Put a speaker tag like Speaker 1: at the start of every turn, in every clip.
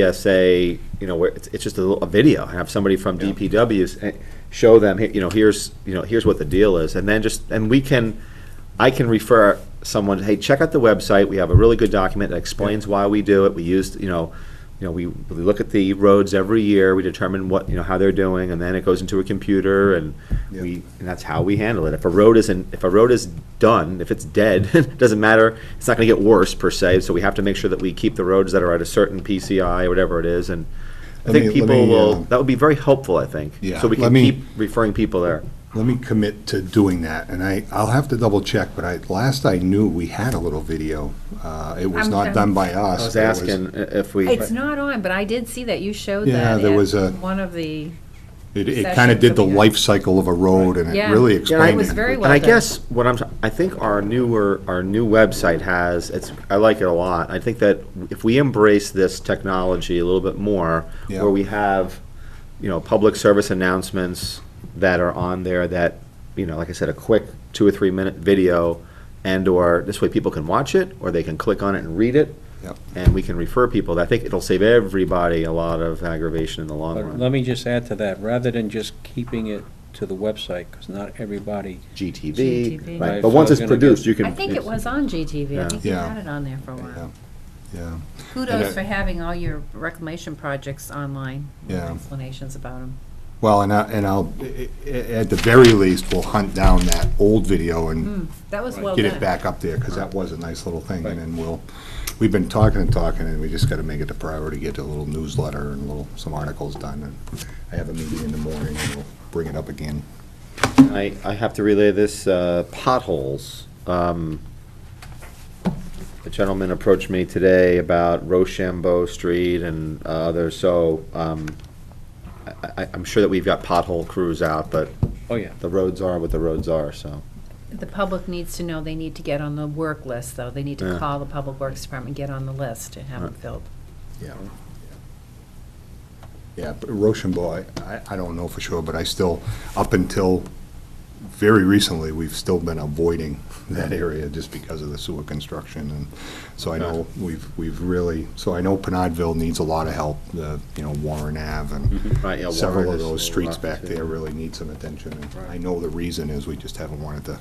Speaker 1: PSA, you know, where it's, it's just a, little, a video, have somebody from DPW's eh, show them, "Here- you know, here's, you know, here's what the deal is, and then just, and we can, I can refer someone, hey, check out the website, we have a really good document that explains why we do it, we used, you know, you know, we, we look at the roads every year, we determine what, you know, how they're doing, and then it goes into a computer, and
Speaker 2: Yeah.
Speaker 1: we, and that's how we handle it. If a road isn't, if a road is done, if it's dead, it doesn't matter, it's not gonna get worse per se, so we have to make sure that we keep the roads that are at a certain PCI, or whatever it is, and I
Speaker 2: Let
Speaker 1: think
Speaker 2: me- let
Speaker 1: people
Speaker 2: me,
Speaker 1: will,
Speaker 2: um,
Speaker 1: that would be very helpful, I think.
Speaker 2: Yeah,
Speaker 1: So we
Speaker 2: let
Speaker 1: can
Speaker 2: me-
Speaker 1: keep referring people there.
Speaker 2: Let me commit to doing that, and I, I'll have to double check, but I, last I knew, we had a little video. Uh, It was
Speaker 3: I'm
Speaker 2: not
Speaker 3: done.
Speaker 2: done by us.
Speaker 1: I was
Speaker 2: but it
Speaker 1: asking uh, if we.
Speaker 3: It's not on, but I did see that, you showed that.
Speaker 2: Yeah, there
Speaker 3: at
Speaker 2: was a-
Speaker 3: One of the,
Speaker 2: It, it kind
Speaker 3: session
Speaker 2: of did the
Speaker 3: coming up.
Speaker 2: life cycle of a road, and it
Speaker 3: Yeah.
Speaker 2: really
Speaker 3: Yeah, I-
Speaker 2: explained it.
Speaker 3: It was very
Speaker 1: And I
Speaker 3: well done.
Speaker 1: guess what I'm, I think our newer, our new website has, it's, I like it a lot. I think that if we embrace this technology a little bit more,
Speaker 2: Yeah.
Speaker 1: where we have, you know, public service announcements that are on there that, you know, like I said, a quick two or three minute video and or this way people can watch it or they can click on it and read it.
Speaker 2: Yep.
Speaker 1: And we can refer people. I think it'll save everybody a lot of aggravation in the long
Speaker 4: But
Speaker 1: run.
Speaker 4: let me just add to that, rather than just keeping it to the website, because not everybody,
Speaker 1: GTV,
Speaker 3: GTV.
Speaker 1: right.
Speaker 4: Right,
Speaker 1: But
Speaker 4: so
Speaker 1: once
Speaker 4: I
Speaker 1: it's
Speaker 4: was gonna
Speaker 1: produced,
Speaker 4: guess-
Speaker 1: you can.
Speaker 3: I think it was on GTV,
Speaker 1: Yeah.
Speaker 3: I think you
Speaker 2: Yeah.
Speaker 3: had it on there for a while.
Speaker 2: Yeah,
Speaker 3: Kudos
Speaker 2: I-
Speaker 3: for having all your reclamation projects online, with
Speaker 2: Yeah.
Speaker 3: explanations about them.
Speaker 2: well, and I, and I'll, i- i- at the very least, we'll hunt down that old video and
Speaker 3: That was well
Speaker 2: get it
Speaker 3: done.
Speaker 2: back up there, because that was a nice little thing, and then we'll, we've been talking and talking, and we just gotta make it a priority, get a little newsletter and little, some articles done, and I have a meeting in the morning, and we'll bring it up again.
Speaker 1: I, I have to relay this, uh, potholes. Um, A gentleman approached me today about Rochambeau Street and uh, others, so um, I, I- I'm sure that we've got pothole crews out, but
Speaker 4: oh yeah.
Speaker 1: the roads are what the roads are, so.
Speaker 3: The public needs to know, they need to get on the work list, though. They need
Speaker 1: Yeah.
Speaker 3: to call the Public Works Department, get on the list and have them
Speaker 1: Right.
Speaker 3: filled.
Speaker 2: Yeah. Yeah, but Rochambeau, I- I, I don't know for sure, but I still, up until very recently, we've still been avoiding that area just because of the sewer construction, and so I know we've, we've really, so I know Penodville needs a lot of help, the, you know, Warren Ave and
Speaker 1: Right, Mm-hmm. yeah,
Speaker 2: several
Speaker 1: Warren
Speaker 2: of
Speaker 1: is
Speaker 2: those
Speaker 1: a
Speaker 2: streets
Speaker 1: lot,
Speaker 2: back
Speaker 1: too.
Speaker 2: there really need some attention. and I know the reason is we just haven't wanted to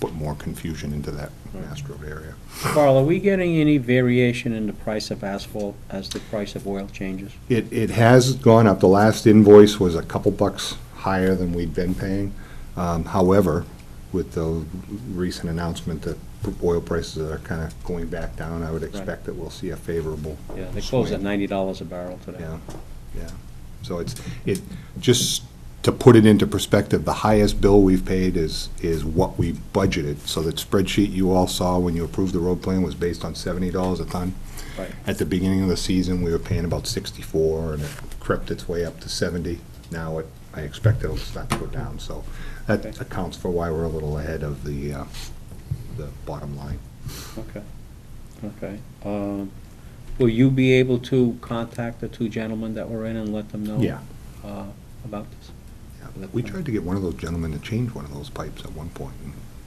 Speaker 2: put more confusion into that Mastro area.
Speaker 4: Carl, are we getting any variation in the price of asphalt as the price of oil changes?
Speaker 2: It, it has gone up. The last invoice was a couple bucks higher than we'd been paying. Um, However, with the recent announcement that oil prices are kind of going back down, I would expect that we'll see a favorable.
Speaker 4: Yeah, they close at
Speaker 2: swing.
Speaker 4: ninety dollars a barrel today.
Speaker 2: Yeah, yeah. So it's, it, just to put it into perspective, the highest bill we've paid is, is what we budgeted. So that spreadsheet you all saw when you approved the road plan was based on seventy dollars a ton.
Speaker 4: Right.
Speaker 2: At the beginning of the season, we were paying about sixty-four, and it crept its way up to seventy. Now, it I expect it'll start to go down, so that
Speaker 4: Okay.
Speaker 2: accounts for why we're a little ahead of the, uh, the bottom line.
Speaker 4: Okay, okay. Um, Will you be able to contact the two gentlemen that were in and let them know?
Speaker 2: Yeah.
Speaker 4: uh, About this?
Speaker 2: Yeah. We tried to get one of those gentlemen to change one of those pipes at one point,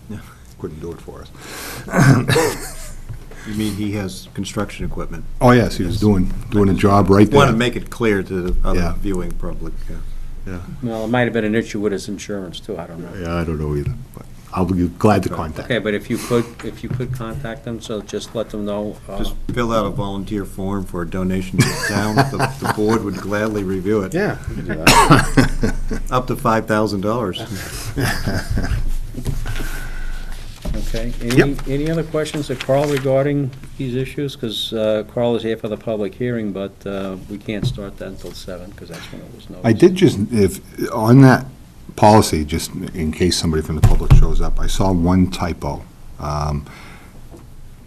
Speaker 2: and couldn't do it for us.
Speaker 5: You mean he has construction equipment?
Speaker 2: Oh, yes, he was doing, doing a job right there.
Speaker 5: Want to make it clear to the
Speaker 2: Yeah.
Speaker 5: other viewing public, yeah.
Speaker 4: Well, it might have been an issue with his insurance too, I don't know.
Speaker 2: Yeah, I don't know either, but I'll be glad to contact.
Speaker 4: Okay, but if you could, if you could contact them, so just let them know. uh,
Speaker 5: Just fill out a volunteer form for a donation to the town. The the board would gladly review it.
Speaker 1: Yeah. we can do that.
Speaker 5: Up to $5,000.
Speaker 4: Okay, any,
Speaker 2: Yep.
Speaker 4: any other questions of Carl regarding these issues? Because Carl is here for the public hearing, but uh, we can't start that until seven, because that's when it was noticed.
Speaker 2: I did just, if, on that policy, just in case somebody from the public shows up, I saw one typo. um,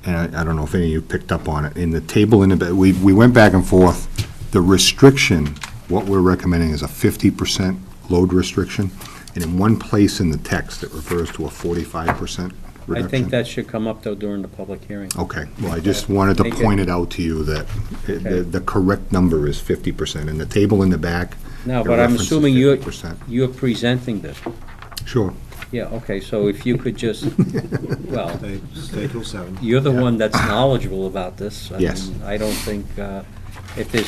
Speaker 2: And I, I don't know if any of you picked up on it. In the table in the, ba- we, we went back and forth. The restriction, what we're recommending is a fifty percent load restriction. And in one place in the text, it refers to a forty-five percent
Speaker 4: I
Speaker 2: reduction.
Speaker 4: think that should come up, though, during the public hearing.
Speaker 2: Okay, well, I just wanted to
Speaker 4: Make it-
Speaker 2: point it out to you that it- the, the correct number is fifty percent, and the table in the back.
Speaker 4: No,
Speaker 2: it
Speaker 4: but I'm
Speaker 2: references
Speaker 4: assuming you're,
Speaker 2: 50%.
Speaker 4: you're presenting this.
Speaker 2: Sure,
Speaker 4: Yeah, okay, so if you could just, well,
Speaker 5: Stay stay till seven.
Speaker 4: you're the one that's knowledgeable about this. I
Speaker 2: Yes.
Speaker 4: mean, I don't think, uh, if there's